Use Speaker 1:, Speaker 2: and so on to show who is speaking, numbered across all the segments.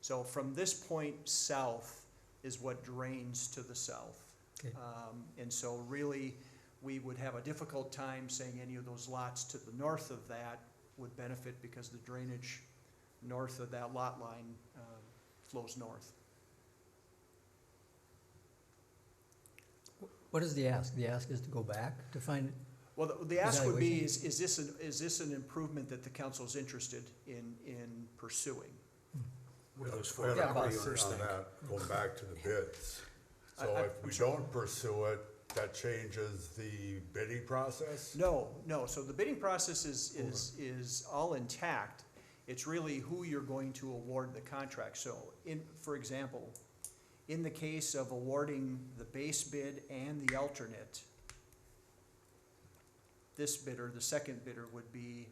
Speaker 1: So from this point south is what drains to the south.
Speaker 2: Okay.
Speaker 1: Um, and so really, we would have a difficult time saying any of those lots to the north of that would benefit because the drainage north of that lot line, um, flows north.
Speaker 2: What is the ask? The ask is to go back to find,
Speaker 1: Well, the- the ask would be, is,
Speaker 2: Evaluation.
Speaker 1: is this, an is this an improvement that the council is interested in, in pursuing?
Speaker 3: What do those
Speaker 4: I
Speaker 3: four
Speaker 4: got a
Speaker 2: about
Speaker 4: question
Speaker 3: owners
Speaker 4: on
Speaker 3: think?
Speaker 4: that, going back to the bids.
Speaker 1: I-
Speaker 4: So
Speaker 1: I-
Speaker 4: if we don't pursue it, that changes the bidding process?
Speaker 1: No, no, so the bidding process is, is, is all intact. It's really who you're going to award the contract. So in, for example, in the case of awarding the base bid and the alternate, this bidder, the second bidder would be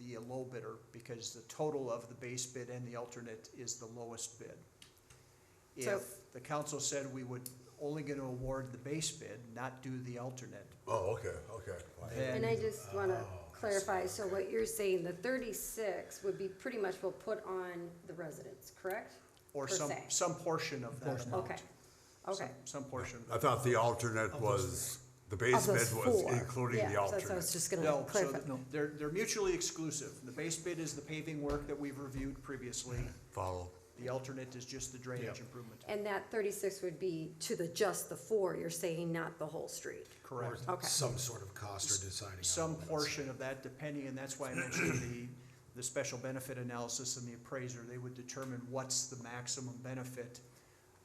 Speaker 1: the low bidder because the total of the base bid and the alternate is the lowest bid.
Speaker 5: So-
Speaker 1: If the council said we would only gonna award the base bid, not do the alternate,
Speaker 4: Oh, okay, okay.
Speaker 1: Then-
Speaker 5: And I just want to
Speaker 4: Oh, I see,
Speaker 5: clarify, so
Speaker 4: okay.
Speaker 5: what you're saying, the thirty-six would be pretty much will put on the residents, correct?
Speaker 1: Or
Speaker 5: per
Speaker 1: some,
Speaker 5: se.
Speaker 1: some portion of that
Speaker 2: Portion.
Speaker 1: amount.
Speaker 5: Okay, okay.
Speaker 1: Some- Some portion of
Speaker 4: I
Speaker 1: that.
Speaker 4: thought the alternate was, the base
Speaker 5: Of
Speaker 4: bid
Speaker 5: those
Speaker 4: was
Speaker 5: four.
Speaker 4: including
Speaker 5: Yeah,
Speaker 4: the
Speaker 5: so that's what I
Speaker 4: alternate.
Speaker 5: was just
Speaker 1: No, so
Speaker 5: gonna clarify.
Speaker 1: th- they're, they're mutually exclusive. The base bid is the paving work that we've reviewed previously.
Speaker 4: Follow.
Speaker 1: The alternate is just the drainage
Speaker 3: Yeah.
Speaker 1: improvement.
Speaker 5: And that thirty-six would be to the, just the four, you're saying, not the whole street?
Speaker 3: Or
Speaker 1: Correct.
Speaker 5: Okay.
Speaker 3: some sort of cost or deciding. on
Speaker 1: Some
Speaker 3: limits.
Speaker 1: portion of that depending, and that's why I mentioned the, the special benefit analysis and the appraiser. They would determine what's the maximum benefit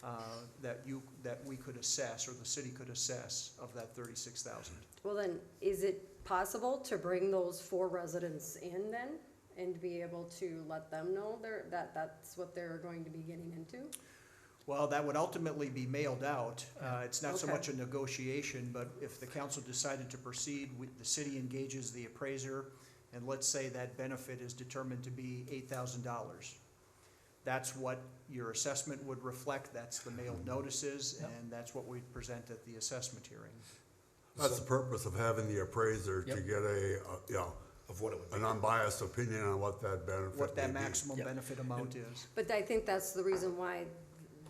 Speaker 1: uh, that you, that we could assess or the city could assess of that thirty-six thousand.
Speaker 5: Well then, is it possible to bring those four residents in then? And be able to let them know they're, that, that's what they're going to be getting into?
Speaker 1: Well, that would ultimately be mailed out. Uh, It's not so
Speaker 5: Okay.
Speaker 1: much a negotiation, but if the council decided to proceed, we- the city engages the appraiser, and let's say that benefit is determined to be eight thousand dollars. That's what your assessment would reflect, that's the mailed notices,
Speaker 2: Yep.
Speaker 1: and that's what we present at the assessment hearing.
Speaker 4: That's the purpose of having the appraiser to
Speaker 2: Yep.
Speaker 4: get a, uh, you know,
Speaker 3: Of what it would be.
Speaker 4: an unbiased opinion on what that benefit
Speaker 1: What that
Speaker 4: may be.
Speaker 1: maximum
Speaker 2: Yep.
Speaker 1: benefit amount is.
Speaker 5: But I think that's the reason why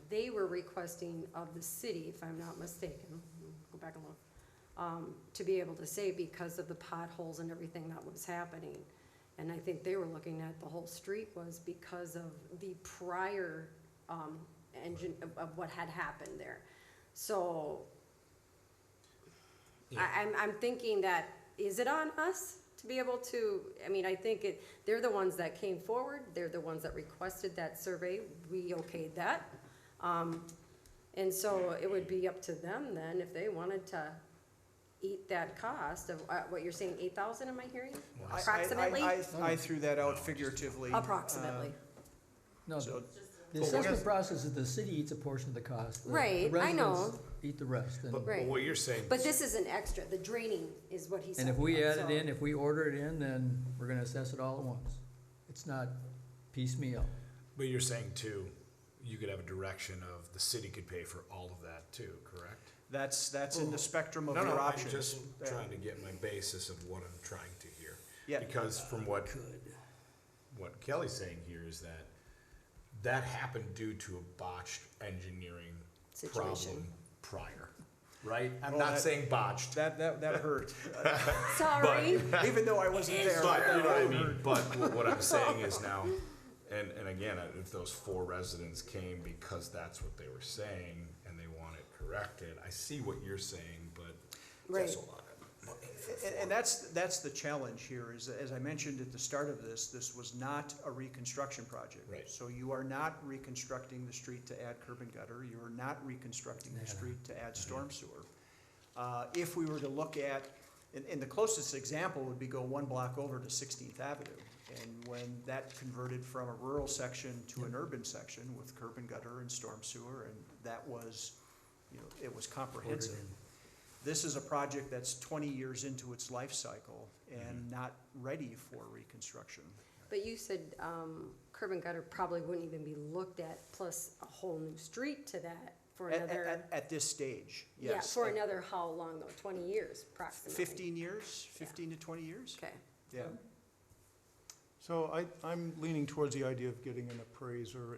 Speaker 5: they were requesting of the city, if I'm not mistaken, go back and look, um, to be able to say because of the potholes and everything that was happening. And I think they were looking at the whole street was because of the prior, um, engine, of, of what had happened there. So
Speaker 3: Yeah.
Speaker 5: I, I'm, I'm thinking that, is it on us to be able to, I mean, I think it, they're the ones that came forward, they're the ones that requested that survey, we okayed that. Um, and so it would be up to them then, if they wanted to eat that cost of, uh, what you're saying, eight thousand, am I hearing?
Speaker 1: I- I- I-
Speaker 5: Approximately?
Speaker 1: I I threw that out figuratively. uh,
Speaker 5: Approximately,
Speaker 2: no,
Speaker 1: So,
Speaker 2: the assessment process is the city eats a portion of the cost. the- the
Speaker 5: Right, I know.
Speaker 2: residents Eat the rest, and,
Speaker 3: But but what you're saying,
Speaker 5: but this is an extra, the draining is what he said.
Speaker 2: and if we add
Speaker 5: so-
Speaker 2: it in, if we order it in, then we're gonna assess it all at once. It's not piecemeal.
Speaker 3: but you're saying too, you could have a direction of the city could pay for all of that too, correct?
Speaker 1: That's, that's in the spectrum of
Speaker 3: No,
Speaker 1: your
Speaker 3: no, I'm
Speaker 1: options.
Speaker 3: just
Speaker 1: Yeah.
Speaker 3: trying to get my basis of what I'm trying to hear.
Speaker 1: Yeah. Uh,
Speaker 3: Because from what, what Kelly's saying here is that that happened due to a botched engineering problem
Speaker 5: Situation.
Speaker 3: prior, right? I'm
Speaker 1: Well,
Speaker 3: not
Speaker 1: that-
Speaker 3: saying botched,
Speaker 1: That, that, that hurt.
Speaker 5: Sorry,
Speaker 1: Even though I wasn't there.
Speaker 3: But
Speaker 1: that
Speaker 3: you know what I
Speaker 1: hurt.
Speaker 3: mean. But wh- what I'm saying is now, and and again, I- if those four residents came because that's what they were saying and they want it corrected, I see what you're saying, but that's a
Speaker 5: Right.
Speaker 3: lot.
Speaker 1: And, and that's, that's the challenge here, is, as I mentioned at the start of this, this was not a reconstruction project.
Speaker 3: Right.
Speaker 1: So you are not reconstructing the street to add curb and gutter, you are not reconstructing the street to add storm sewer. Uh, if we were to look at, and, and the closest example would be go one block over to Sixteenth Avenue. And when that converted from a rural section to an urban section with curb and gutter and storm sewer, and that was, you know, it was comprehensive this is a project that's twenty years into its life cycle
Speaker 6: Mm-hmm.
Speaker 1: and not ready for reconstruction.
Speaker 5: But you said um, curb and gutter probably wouldn't even be looked at, plus a whole new street to that for
Speaker 1: At, at-
Speaker 5: another,
Speaker 1: at- at this stage,
Speaker 5: yeah,
Speaker 1: yes.
Speaker 5: for another how long though, twenty years approximately?
Speaker 1: Fifteen years, fifteen to twenty years,
Speaker 5: Okay,
Speaker 1: yeah.
Speaker 6: So I, I'm leaning towards the idea of getting an appraiser